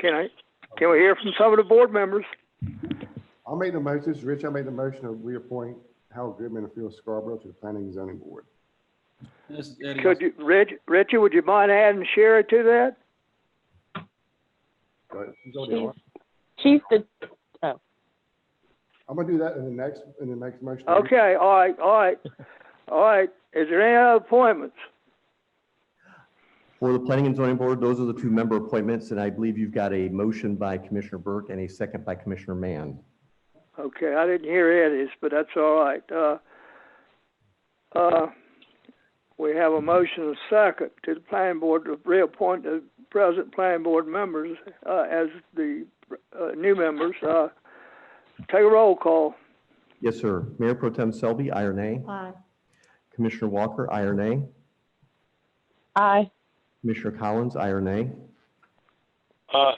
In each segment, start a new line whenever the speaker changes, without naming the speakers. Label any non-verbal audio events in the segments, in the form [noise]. Can I, can we hear from some of the board members?
I'll make the motion, this is Rich, I made the motion to reappoint Howard Goodman and Phil Scarborough to the Planning and Zoning Board.
This is Eddie.
Could you, Reg, Richie, would you mind adding Sherry to that?
But she's already on.
She's the,
I'm gonna do that in the next, in the next motion.
Okay, all right, all right, all right. Is there any other appointments?
For the Planning and Zoning Board, those are the two member appointments, and I believe you've got a motion by Commissioner Burke and a second by Commissioner Mann.
Okay, I didn't hear Eddie's, but that's all right. Uh, uh, we have a motion and a second to the planning board to reappoint the present planning board members, uh, as the, uh, new members. Uh, take a roll call.
Yes, sir. Mayor Pro Tem Selby, aye or nay?
aye.
Commissioner Walker, aye or nay?
Aye.
Commissioner Collins, aye or nay?
Aye.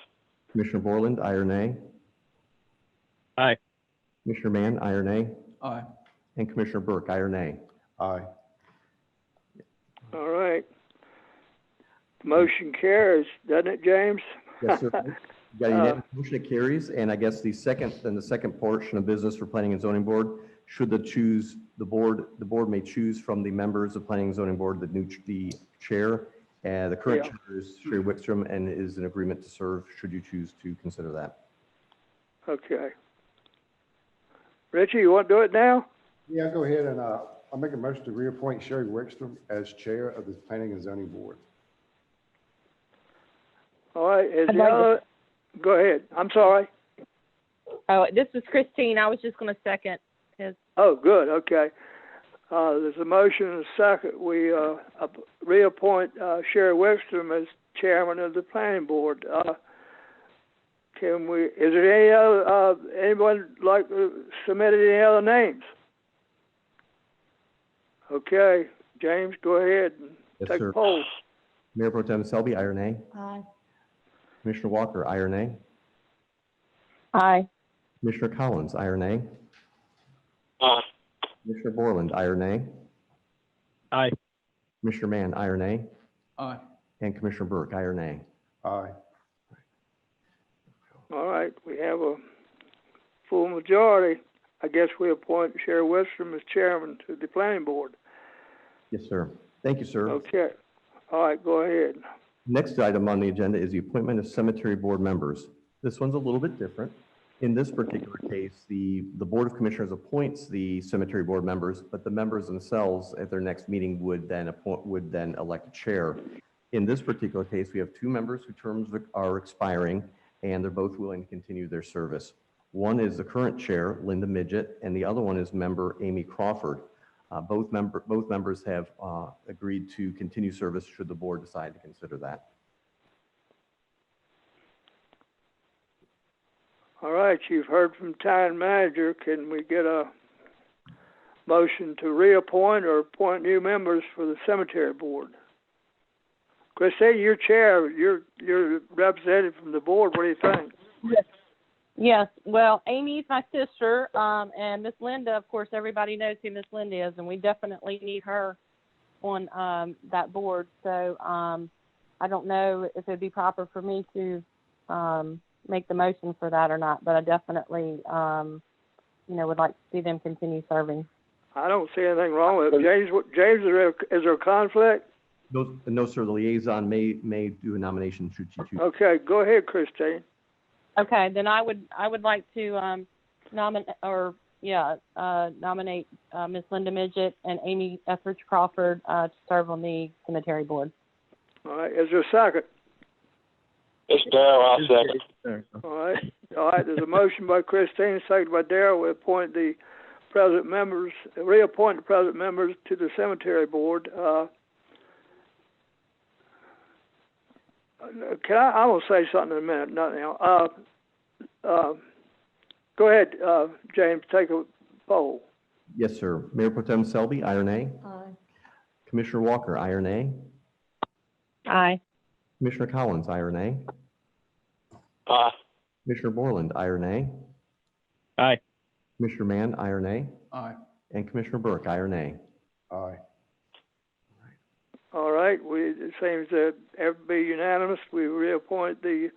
Commissioner Borland, aye or nay?
Aye.
Commissioner Mann, aye or nay?
Aye.
And Commissioner Burke, aye or nay?
Aye.
All right. Motion carries, doesn't it, James?
[laughs] Yes, sir. You Got a unanimous motion that carries, and I guess the second, then the second portion of business for Planning and Zoning Board, should the choose, the board, the board may choose from the members of Planning and Zoning Board, the new, ch- the chair, and the current
Yeah.
chair is Sherry Wickstrom, and is an agreement to serve, should you choose to consider that.
Okay. Richie, you want to do it now?
Yeah, I'll go ahead and, uh, I'll make a motion to reappoint Sherry Wickstrom as Chair of the Planning and Zoning Board.
All right, is
I'd
the
like to-
other, go ahead. I'm sorry.
Oh, this is Christine. I was just gonna second.
Oh, good, okay. Uh, there's a motion and a second. We, uh, ap- reappoint, uh, Sherry Wickstrom as chairman of the planning board. Uh, can we, is there any other, uh, anyone like uh, submitted any other names? Okay, James, go ahead and
Yes,
take
sir.
a poll.
Mayor Pro Tem Selby, aye or nay?
Aye.
Commissioner Walker, aye or nay?
Aye.
Commissioner Collins, aye or nay?
Aye.
Commissioner Borland, aye or nay?
Aye.
Commissioner Mann, aye or nay?
Aye.
And Commissioner Burke, aye or nay?
Aye.
All right, we have a full majority. I guess we appoint Sherry Wickstrom as chairman to the planning board.
Yes, sir. Thank you, sir.
Okay, all right, go ahead.
Next item on the agenda is the appointment of cemetery board members. This one's a little bit different. In this particular case, the, the Board of Commissioners appoints the cemetery board members, but the members themselves at their next meeting would then appoint, would then elect a chair. In this particular case, we have two members whose terms are expiring, and they're both willing to continue their service. One is the current chair, Linda Midget, and the other one is member Amy Crawford. Uh, Both member, both members have uh, agreed to continue service should the board decide to consider that.
All right, you've heard from town manager. Can we get a motion to reappoint or appoint new members for the cemetery board? Christine, you're chair, you're, you're represented from the board. What do you think?
Yes, well, Amy's my sister, um, and Miss Linda, of course, everybody knows who Miss Linda is, and we definitely need her on um, that board. So um, I don't know if it'd be proper for me to um, make the motion for that or not, but I definitely, um, you know, would like to see them continue serving.
I don't see anything wrong with it. James, what- James, is there, is there a conflict?
No, no, sir, the liaison may, may do a nomination should she choose.
Okay, go ahead, Christine.
Okay, then I would I would like to um, nominate or yeah uh, nominate uh, Miss Linda Midget and Amy Etheridge Crawford uh, to serve on the cemetery board.
All right, is there a second?
It's Darrell, I'll second.
All right, all right, there's a motion by Christine, second by Darrell, we appoint the present members, reappoint the present members to the cemetery board, uh. uh, Can I, I'm gonna say something in a minute, not now, uh, uh, go ahead, uh, James, take a poll.
Yes, sir. Mayor Pro Tem Selby, aye or nay?
Aye.
Commissioner Walker, aye or nay?
Aye.
Commissioner Collins, aye or nay?
Aye.
Commissioner Borland, aye or nay?
Aye.
Commissioner Mann, aye or nay?
Aye.
And Commissioner Burke, aye or nay?
Aye.
All right, we, it seems that everybody unanimous, we reappoint the